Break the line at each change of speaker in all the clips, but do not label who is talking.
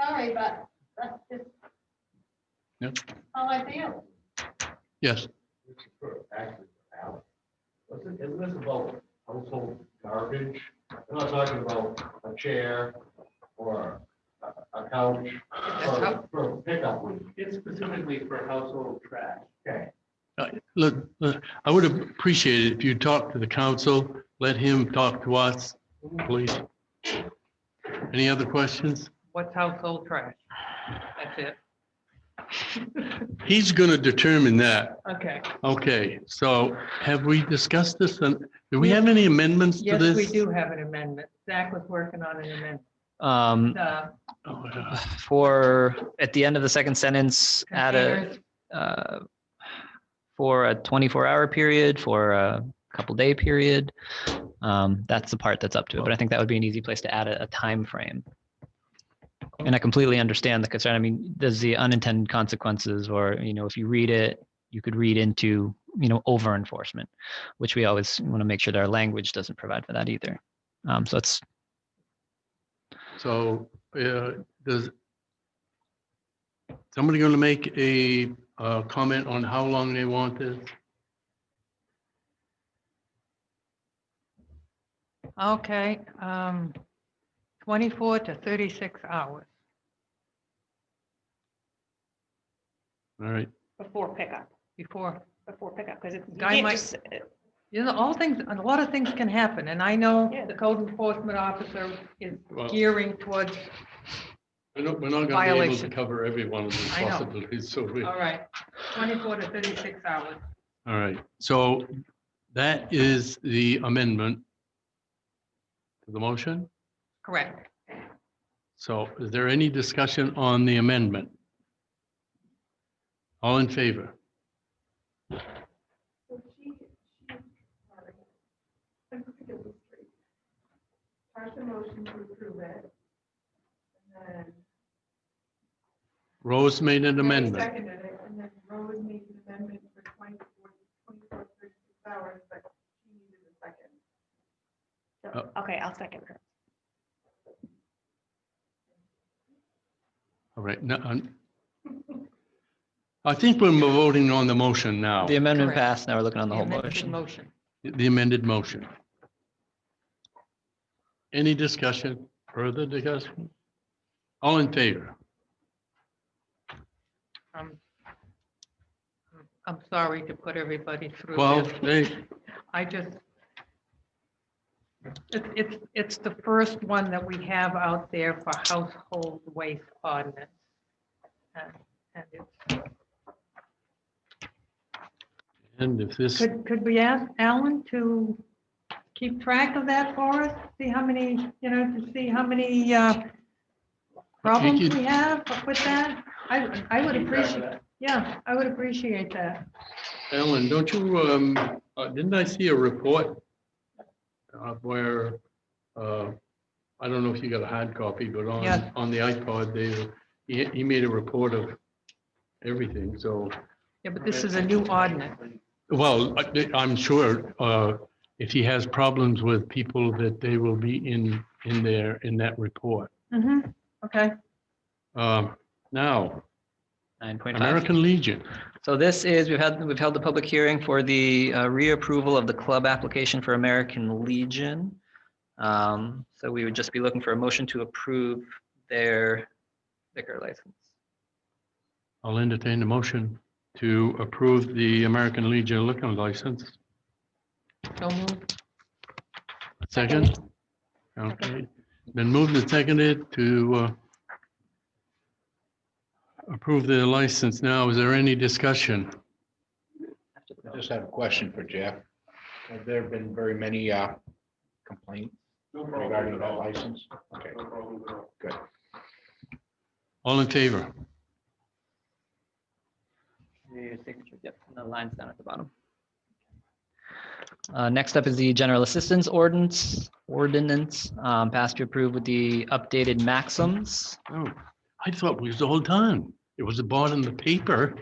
sorry, but that's just
Yep.
how I feel.
Yes,
This is sort of back to the alley. Listen, isn't this about household garbage? I'm not talking about a chair or a- a couch or for pickup. room.
It's specifically for household trash.
Okay.
Uh, look, uh, I would appreciate it if you talked to the council, let him talk to us, please. Any other questions?
What's household trash? That's it.
He's going to determine that.
Okay.
Okay, so have we discussed this? And do we have any amendments to
Yes,
this?
we do have an amendment. Zach was working on an amendment.
Um,
Uh,
Oh, yeah.
for, at the end of the second sentence, add a,
containers,
uh, for a twenty-four hour period, for a couple day period. Um, that's the part that's up to it, but I think that would be an easy place to add a, a time frame. And I completely understand the concern. I mean, there's the unintended consequences, or, you know, if you read it, you could read into, you know, over enforcement, which we always want to make sure that our language doesn't provide for that either. Um, so it's
So, uh, does somebody going to make a, uh comment on how long they want this?
Okay, um, twenty-four to thirty-six hours.
All right,
Before pickup,
before,
before pickup, because it's. you
Guy
can't
might-
just-
you know, all things, a lot of things can happen, and I know
Yeah.
the code enforcement officer is
Well-
gearing towards,
we're not, we're not going to be able to
Violation.
cover every one of these
I know.
possibilities, so we, all
all right, twenty-four to thirty-six hours.
right. So that is the amendment to the motion.
Correct.
So is there any discussion on the amendment? All in favor?
So she, she, sorry. I'm gonna get this straight. Partial motion to approve it. And then.
Rose made an amendment.
Seconded it, and then Rose made an amendment for 24 24, 36 hours, but she needed a second.
Oh.
so- Okay, I'll second her.
All right, no, I'm- I think we're voting on the motion now,
the amendment
Correct.
passed. Now we're looking on the whole
amended
motion.
Motion.
the amended motion. Any discussion, further discussion? All in favor?
Um, I'm sorry to put everybody through
Well,
this.
hey,
I just, it's, it's, it's the first one that we have out there for household waste ordinance. And- and it's-
and if this,
Could, could we ask Alan to keep track of that for us? See how many, you know, to see how many uh, problems
you-
we have with that? I, I would
Keep track of
appreciate,
that.
yeah, I would appreciate that.
Ellen, don't you, um, uh, didn't I see a report? uh, Where, uh, I don't know if you got a hard copy, but on,
Yeah.
on the iPod, they, he, he made a report of everything, so.
Yeah, but this is a new ordinance.
Well, I- I'm sure uh, if he has problems with people that they will be in, in there, in that report.
Mhm, Okay.
Um, Now,
Nine point five.
American Legion,
So this is, we've had, we've held the public hearing for the uh, reapproval of the club application for American Legion. Um, So we would just be looking for a motion to approve their liquor license.
I'll entertain the motion to approve the American Legion liquor license.
So moved.
Second? Okay, then moved and seconded to uh, approve the license. Now, is there any discussion?
I just have a question for Jeff. Have there been very many uh, complaints
No problem
regarding
at
that
all.
license? Okay,
No problem at all.
good.
All in favor?
Your signature, Yep, and the lines down at the bottom. Uh, Next up is the general assistance ordinance, ordinance um, passed to approve with the updated maxims.
Oh, I thought we was all done. It was bought in the paper.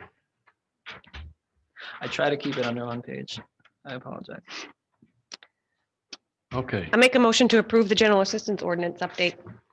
I try to keep it under one page. I apologize.
Okay,
I make a motion to approve the general assistance ordinance update.